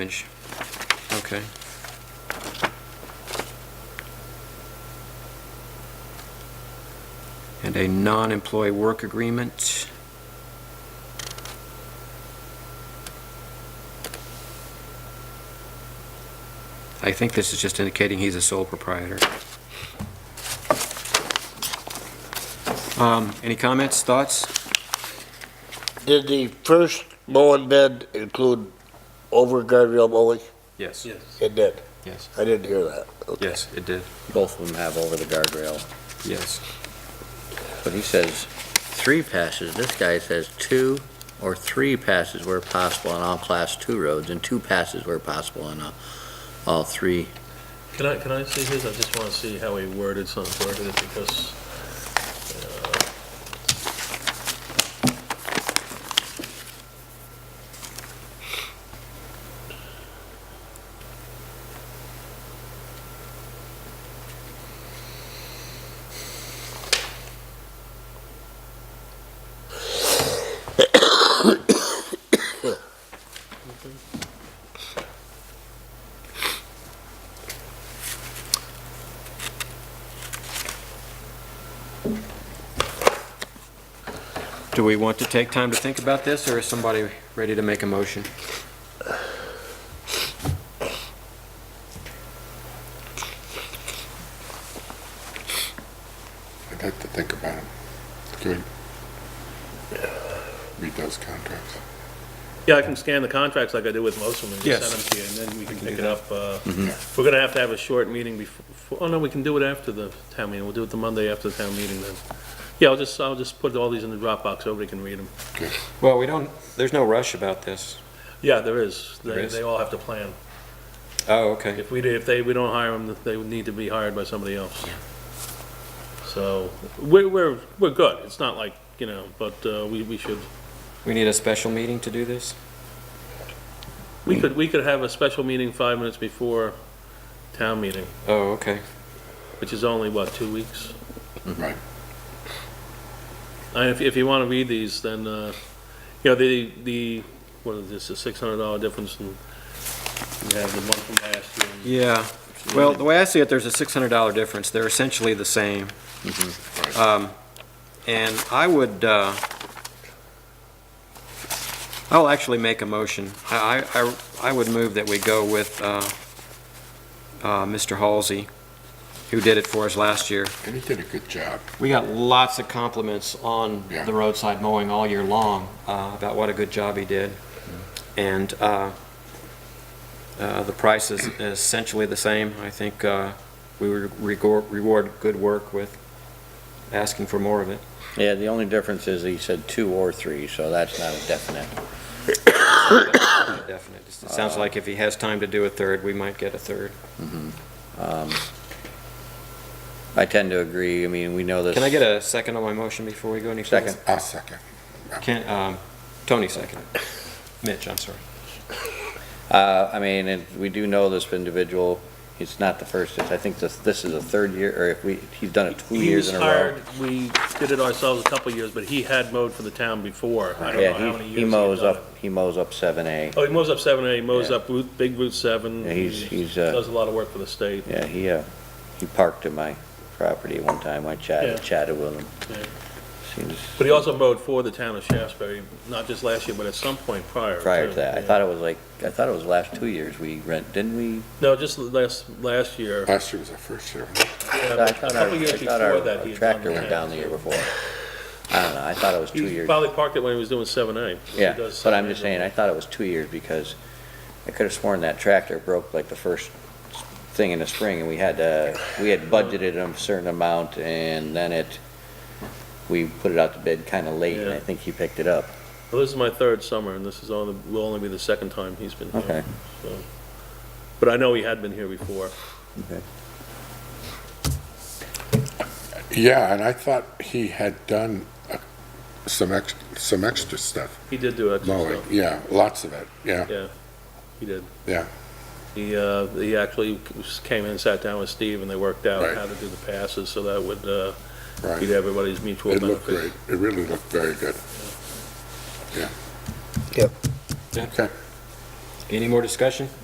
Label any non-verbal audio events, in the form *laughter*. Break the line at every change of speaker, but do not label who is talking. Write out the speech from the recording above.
Inch. Okay. And a non-employee work agreement. I think this is just indicating he's a sole proprietor. Um, Any comments, thoughts?
Did the first mowing bid include over guardrail mowing?
Yes.
It did.
Yes.
I didn't hear that. Okay.
Yes, it did.
Both of them have over the guardrail,
Yes.
but he says three passes. This guy says two or three passes where possible on all class two roads and two passes where possible on all, all three.
Can I, can I see his? I just want to see how he worded some, worded it because, uh,
Do we want to take time to think about this, or is somebody ready to make a motion?
I'd like to think about it. Good. Read those contracts.
yeah, I can scan the contracts like I do with most of them and
Yes.
just send them to you, and then we can pick
do Mm-hmm.
it up. uh, We're going to have to have a short meeting before, oh no, we can do it after the town meeting. We'll do it the Monday after the town meeting then. Yeah, I'll just, I'll just put all these in the Dropbox, everybody can read them.
Well, we don't, there's no rush about this.
Yeah, there is.
There
They,
is?
they all have to plan.
Oh, okay.
If we, did- if they, we don't hire them, they would need to be hired by somebody else. So, we're, we're, we're good. It's not like, you know, but uh, we, we should
We need a special meeting to do this?
We
Mm-hmm.
could, we could have a special meeting five minutes before town meeting,
Oh, okay.
which is only, what, two weeks?
Mm-hmm.
Right.
And if, if you want to read these, then, uh, you know, the, the, what is this, a six hundred dollar difference in, you have the one from last year.
Yeah, well, the way I see it, there's a $600 difference. They're essentially the same. Um, And I would, uh, I'll actually make a motion. I, I- I I would move that we go with uh, uh, Mr. Halsey, who did it for us last year.
And he did a good job.
We got lots of compliments on
Yeah.
the roadside mowing all year long uh, about what a good job he did. And uh, uh, the price is essentially the same. I think uh, we re- regor- reward good work with asking for more of it. *coughs*
Yeah, the only difference is he said two or three, so that's not a definite.
Definite. It sounds like if he has time to do a third, we might get a third.
um, I tend to agree. I mean, we know this.
Can I get a second on my motion before we go any further?
Second.
I'll second.
Can- um, Tony second. Mitch, I'm sorry.
Uh, I mean, and we do know this individual, it's not the first, I think this, this is the third year, or if we, he's done it two
He
years
was
in a row.
hired, we did it ourselves a couple of years, but he had mowed for the town before. I don't know
Yeah,
how
he-
many years.
He
had
mows
done it.
up, he mows up seven A.
Oh, he mows up seven A, he mows
Yeah.
up Route, Big Route seven.
Yeah, he's-
He
he's, uh,
Does a lot of work for the state.
Yeah, he, uh, he parked at my property one time, I
Yeah.
chatted, chatted with him.
Yeah.
Seems
But he also mowed for the town of Shaftesbury, not just last year, but at some point prior.
prior
too.
to that, I
Yeah.
thought it was like, I thought it was last two years we rent, didn't we?
No, just last, last year.
Last year was our first year.
Yeah,
I
but A
thought our-
couple years
I
before
thought our
that, he had done
Tractor went
that.
down the year before. I don't know, I thought it was two
He
years.
probably parked it when he was doing seven A.
Yeah, but I'm just saying, I thought it was two years because I could have sworn that tractor broke like the first thing in the spring and we had, uh, we had budgeted a certain amount and then it, we put it out to bid kind of late and I
Yeah.
think he picked it up.
Well, this is my third summer, and this is only, will only be the second time he's been here.
Okay.
so. But I know he had been here before.
Yeah, and I thought he had done uh, some ex, some extra stuff.
He did do extra
Mowing,
stuff.
yeah, lots of it, yeah.
Yeah, he did.
Yeah.
He, uh, he actually came in, sat down with Steve, and they worked out
Right.
how to do the passes, so that would, uh,
Right.
be to everybody's mutual
It
benefit.
looked great. It really looked very good. Yeah.
Yep.
Okay.
Any more discussion?